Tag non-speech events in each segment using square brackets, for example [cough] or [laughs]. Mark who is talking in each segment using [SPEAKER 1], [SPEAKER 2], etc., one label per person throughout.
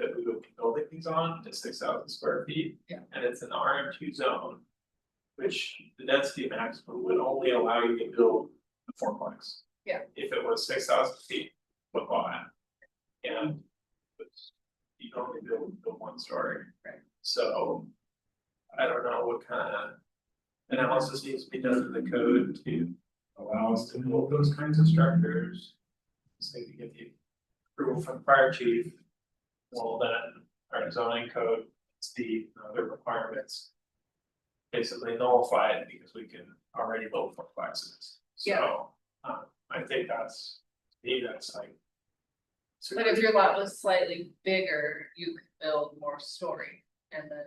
[SPEAKER 1] we can build things on, it's six thousand square feet.
[SPEAKER 2] Yeah.
[SPEAKER 1] And it's an RM two zone. Which the density maximum would only allow you to build a fourplex.
[SPEAKER 2] Yeah.
[SPEAKER 1] If it was six thousand feet, would buy it. And. but You can only build the one story.
[SPEAKER 2] Right.
[SPEAKER 1] So. I don't know what kind of. Analysis needs to be done in the code to allow us to build those kinds of structures. So you get the approval from fire chief. Well, then our zoning code, it's the other requirements. Basically nullify it because we can already build four boxes, so, um, I think that's, to me, that's like.
[SPEAKER 2] But if your lot was slightly bigger, you could build more story and then.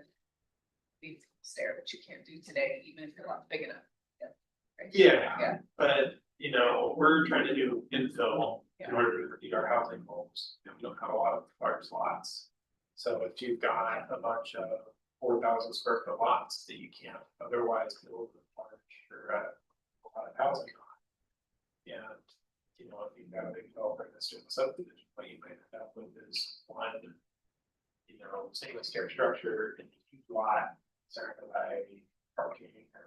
[SPEAKER 2] Be stair, which you can't do today, even if your lot's big enough. Yeah. Right?
[SPEAKER 1] Yeah,
[SPEAKER 2] Yeah.
[SPEAKER 1] but, you know, we're trying to do infill
[SPEAKER 2] Yeah.
[SPEAKER 1] in order to meet our housing goals, and we don't have a lot of large lots. So if you've got a bunch of four thousand square foot lots that you can't otherwise build a large or a lot of housing on. And, you know, if you've got a big developer that's doing subdivision, what you might end up with is one. You know, single stair structure in a huge lot, surrounded by parking or.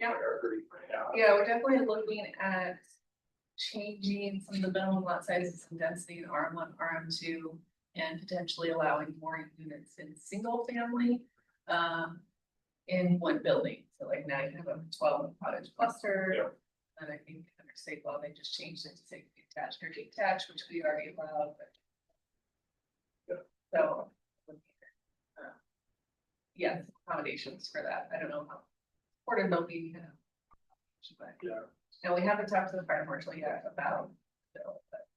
[SPEAKER 2] Yeah.
[SPEAKER 1] Whatever you might have.
[SPEAKER 2] Yeah, we're definitely looking at changing some of the minimum lot sizes and density in RM one, RM two. And potentially allowing more units in single family, um, in one building, so like now you have a twelve cottage
[SPEAKER 1] Yeah.
[SPEAKER 2] cluster. And I think under state law, they just changed it to say detached or detached, which we already allowed, but.
[SPEAKER 1] Yeah.
[SPEAKER 2] So. uh, Yeah, accommodations for that, I don't know how, supportive they'll be, uh, you know. But,
[SPEAKER 1] Yeah,
[SPEAKER 2] no, we haven't talked to the fire marshal yet about. the bill, but-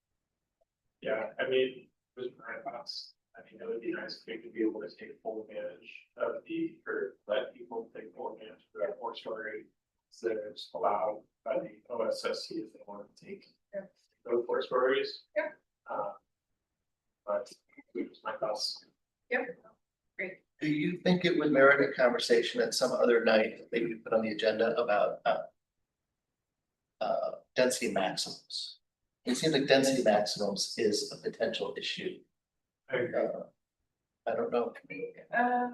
[SPEAKER 1] yeah, I mean, it was my thoughts, I mean, it would be nice if we could be able to take full advantage of the, or let people take full advantage of that four story. So that it's allowed by the OSSC if they want to take
[SPEAKER 2] Yeah.
[SPEAKER 1] those four stories.
[SPEAKER 2] Yeah.
[SPEAKER 1] Uh, But it was my thoughts.
[SPEAKER 3] Do you think it would merit a conversation at some other night, maybe we put on the agenda about uh. Uh, density maximums? It seems like density maximums is a potential issue.
[SPEAKER 1] I agree.
[SPEAKER 3] Uh, I don't know.
[SPEAKER 2] Uh,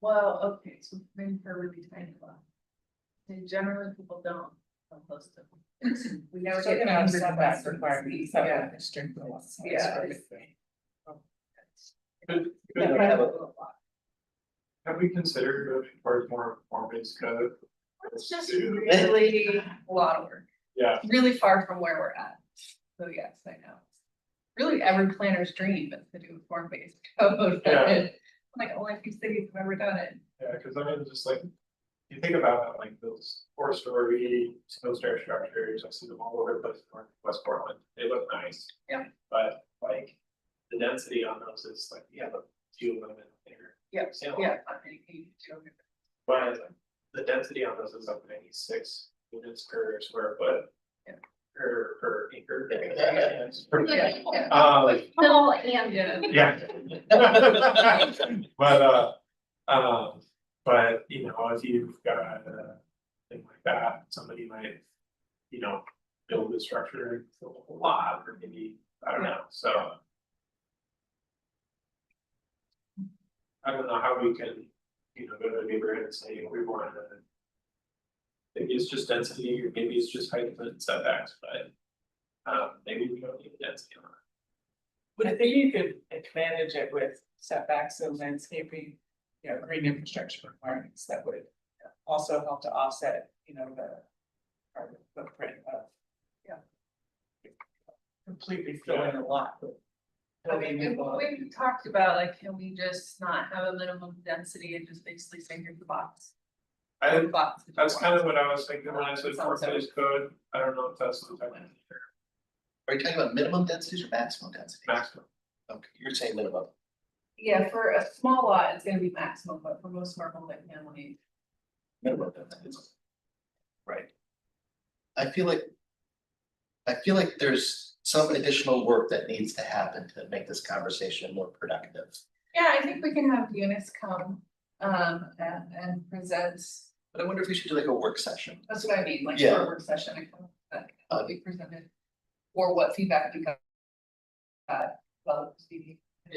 [SPEAKER 2] well, okay, so maybe for really tiny lot. And generally people don't compost them. [clears throat] We never
[SPEAKER 4] Still
[SPEAKER 2] get.
[SPEAKER 4] gonna have
[SPEAKER 2] hundred
[SPEAKER 4] setback
[SPEAKER 2] bucks.
[SPEAKER 4] requirements,
[SPEAKER 2] Yeah.
[SPEAKER 4] setback restrict the lot size.
[SPEAKER 2] Yeah.
[SPEAKER 4] right?
[SPEAKER 3] We don't have a-
[SPEAKER 1] Have we considered moving towards more performance code?
[SPEAKER 2] It's just
[SPEAKER 1] Two.
[SPEAKER 2] really a lot of work,
[SPEAKER 1] Yeah,
[SPEAKER 2] really far from where we're at. So yes, I know. Really every planner's dream is to do a form-based [laughs] code.
[SPEAKER 1] Yeah.
[SPEAKER 2] Like only a few cities have ever done it.
[SPEAKER 1] yeah, cause I mean, just like, you think about it, like those four story, those stair structures, I see them all over the place in North- West Portland, they look nice.
[SPEAKER 2] Yeah.
[SPEAKER 1] But like, the density on those is like, yeah, but few of them in there.
[SPEAKER 2] Yeah,
[SPEAKER 1] Salem.
[SPEAKER 2] Yeah. I think you do.
[SPEAKER 1] But the density on those is up ninety six units per square foot.
[SPEAKER 2] Yeah.
[SPEAKER 1] Per per acre.
[SPEAKER 3] Yeah.
[SPEAKER 2] [laughs] Yeah, yeah.
[SPEAKER 1] Um,
[SPEAKER 2] Little and.
[SPEAKER 1] Yeah.
[SPEAKER 2] [laughs]
[SPEAKER 1] [laughs] But, uh, um, but, you know, if you've got a thing like that, somebody might, you know, build a structure, build a lot, or maybe, I don't know, so. I don't know how we can, you know, go to a neighborhood and say, we want to. Maybe it's just density, or maybe it's just height and setbacks, but, um, maybe we don't need the density on it.
[SPEAKER 4] But I think you could manage it with setbacks and landscaping, you know, green infrastructure requirements that would also help to offset, you know, the carbon footprint of.
[SPEAKER 2] Yeah.
[SPEAKER 4] Completely filling a lot with.
[SPEAKER 2] I mean,
[SPEAKER 4] building a lot.
[SPEAKER 2] we, we talked about like, can we just not have a minimum density and just basically say here's the box?
[SPEAKER 1] I,
[SPEAKER 2] The box that you
[SPEAKER 1] That's
[SPEAKER 2] want.
[SPEAKER 1] kind of what I was thinking when I said
[SPEAKER 2] Sounds like-
[SPEAKER 1] foreclosed code, I don't know if that's the type of
[SPEAKER 3] Are you talking about minimum densities or maximum densities?
[SPEAKER 1] maximum.
[SPEAKER 3] Okay, you're saying minimum.
[SPEAKER 2] Yeah, for a small lot, it's gonna be maximum, but for most of our multifamily,
[SPEAKER 3] Minimum densities. Right. I feel like. I feel like there's some additional work that needs to happen to make this conversation more productive.
[SPEAKER 2] yeah, I think we can have units come, um, and, and present,
[SPEAKER 3] But I wonder if we should do like a work session.
[SPEAKER 2] that's what I mean, like for
[SPEAKER 3] Yeah.
[SPEAKER 2] a work session, I come, that will be presented. Or what feedback we got. Uh, well, it's uh, the-